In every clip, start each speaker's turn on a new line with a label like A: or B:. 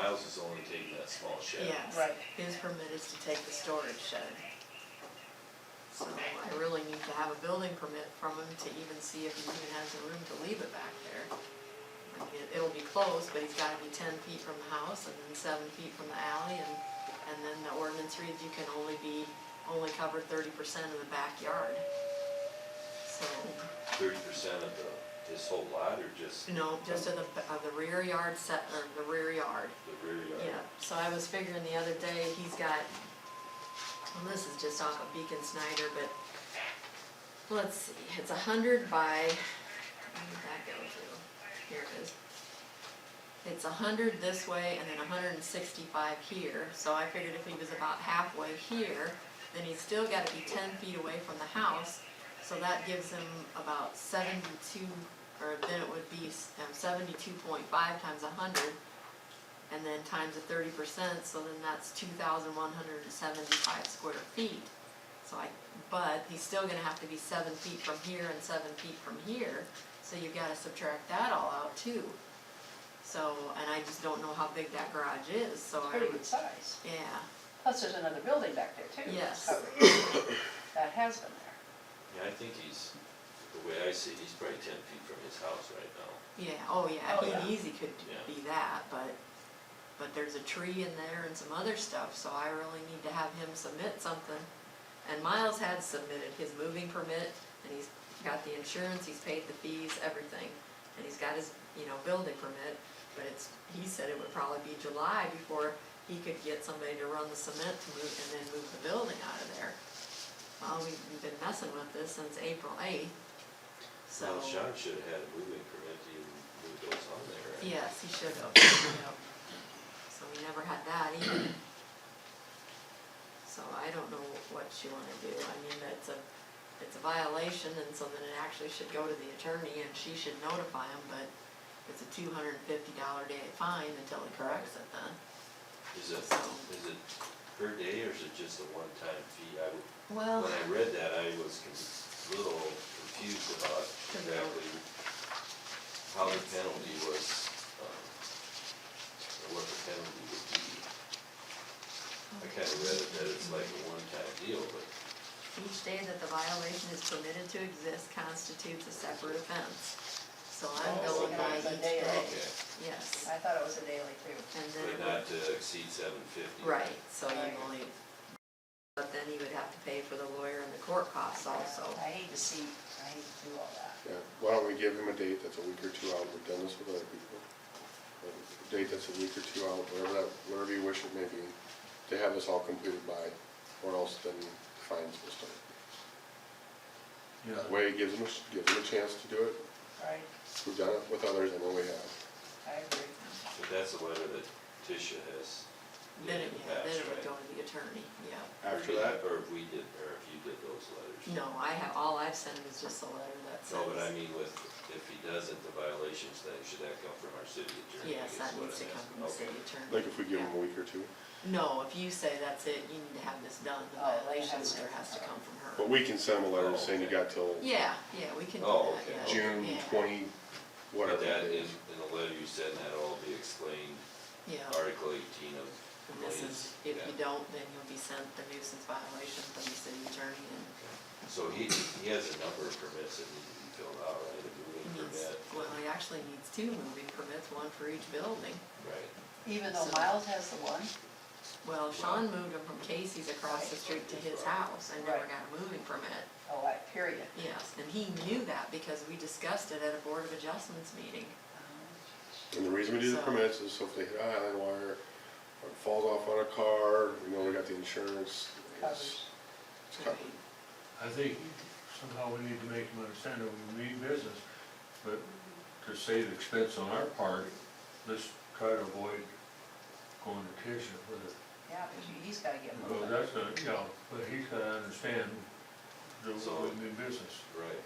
A: houses only taking that small shed.
B: Yes.
C: Right.
B: His permit is to take the storage shed. So I really need to have a building permit from him to even see if he even has the room to leave it back there. I mean, it- It'll be closed, but he's gotta be ten feet from the house and then seven feet from the alley and, and then the ordinance reads you can only be, only cover thirty percent of the backyard. So,
A: Thirty percent of the, this whole lot or just
B: you know, just of the, of the rear yard set, or the rear yard.
A: the rear yard?
B: Yeah, so I was figuring the other day, he's got, well, this is just off of Beacon Snyder, but let's see, it's a hundred by, where did that go to? Here it is. It's a hundred this way and then a hundred and sixty-five here, so I figured if he was about halfway here, then he's still gotta be ten feet away from the house, so that gives him about seventy-two, or then it would be um, seventy-two point five times a hundred, and then times a thirty percent, so then that's two thousand one hundred and seventy-five square feet. So I, but he's still gonna have to be seven feet from here and seven feet from here, so you've gotta subtract that all out too. So, and I just don't know how big that garage is, so I
C: Pretty
B: would,
C: good size.
B: yeah,
C: Plus, there's another building back there too.
B: Yes.
C: covered. That has been there.
A: Yeah, I think he's, the way I see it, he's probably ten feet from his house right now.
B: yeah, oh
C: Oh,
B: yeah,
C: yeah.
B: he easy could
A: Yeah.
B: be that, but, but there's a tree in there and some other stuff, so I really need to have him submit something. And Miles had submitted his moving permit, and he's got the insurance, he's paid the fees, everything, and he's got his, you know, building permit, but it's, he said it would probably be July before he could get somebody to run the cement to move, and then move the building out of there. Well, we've been messing with this since April eighth, so,
A: Well, Sean should have had a moving permit to even move those on there. right?
B: yes, he should have, yep. So we never had that either. So I don't know what you wanna do, I mean, it's a, it's a violation, and so then it actually should go to the attorney, and she should notify him, but it's a two hundred and fifty dollar day fine until he corrects it then.
A: Is it,
B: So-
A: is it per day or is it just a one-time fee? I would,
B: Well,
A: when I read that, I was con- little confused about exactly how the penalty was, um, or what the penalty would be. I kinda read it that it's like a one-time deal, but
B: each day that the violation is permitted to exist constitutes a separate offense. So I'm
C: Oh,
B: going
C: so
B: by
C: it's a
B: each
C: day.
B: day,
A: okay,
B: yes,
C: I thought it was a daily too.
B: and then.
A: but
B: it
A: not to exceed seven fifty.
B: Right, so you
C: Right.
B: only, but then you would have to pay for the lawyer and the court costs also.
C: I hate to see, I hate to do all that.
D: Yeah, why don't we give him a date that's a week or two out, we've done this with other people. A Date that's a week or two out, whatever, that- whatever you wish it may be, to have this all completed by, or else then fines will start. That Way it gives him, a- gives him a chance to do it,
C: Right,
D: we've done it with others, I know we have.
C: I agree.
A: But that's the letter that Tisha has.
B: Then
A: did
B: it,
A: in the
B: yeah, then
A: past,
B: it would
A: right?
B: go to the attorney, yeah.
D: After that,
A: Or if we did, or if you did those letters.
B: No, I have, all I've sent him is just a letter that says.
A: No, but I mean with, if he doesn't, the violations thing, should that come from our city attorney?
B: Yes,
A: is
B: that
A: what
B: needs to
A: I'm
B: come from the
A: asking.
B: city
A: Okay.
B: attorney.
D: like if we give him a
B: Yeah.
D: week or two,
B: No, if you say that's it, you need to have this done, the
C: Oh, it
B: violation
C: has to
B: letter
C: come
B: has to
C: from
B: come from her.
D: but we can send him a letter saying you
A: Okay.
D: got till
B: Yeah, yeah, we can do
A: Oh,
B: that,
A: okay.
B: yeah.
D: June
B: yeah,
D: twenty,
A: But
D: whatever.
A: that in,
D: it is.
A: in the letter you said, that'll all be explained,
B: Yeah,
A: Article eighteen of.
B: and this is, if
A: Yeah.
B: you don't, then you'll be sent the nuisance violation from the city attorney and
A: So he, he has a number of permits that need to be filled out, right, a moving
B: Needs,
A: permit,
B: well, he actually needs two moving permits, one for each building.
A: right?
C: Even though
B: So-
C: Miles has the one,
B: Well, Sean moved him from Casey's across the street to his house and never got a moving permit.
C: oh, I, period.
B: Yes, and he knew that because we discussed it at a Board of Adjustments meeting.
D: And the reason we do the
B: So-
D: permits is so if they hit a high wire, or it falls off on a car, we know we got the insurance.
C: Covers.
D: it's- it's covered.
E: I think somehow we need to make them understand that we mean business, but to save expense on our part, let's try to avoid going to Tisha with it.
C: Yeah, but you- he's gotta get
E: Well,
C: moving.
E: that's not, yeah, but he's gotta understand that
A: So-
E: we mean business.
A: Right,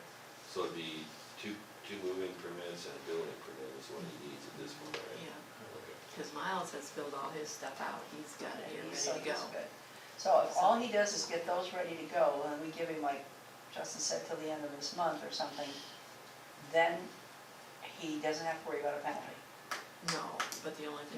A: so it'd be two, two moving permits and a building permit is what he needs at this point,
B: Yeah,
A: right? Okay.
B: because Miles has filled all his stuff out, he's got it here,
C: So
B: ready to go.
C: he's good. So if all he does is get those ready to go, and we give him like Justin said, till the end of this month or something, then he doesn't have to worry about a penalty.
B: No, but the only thing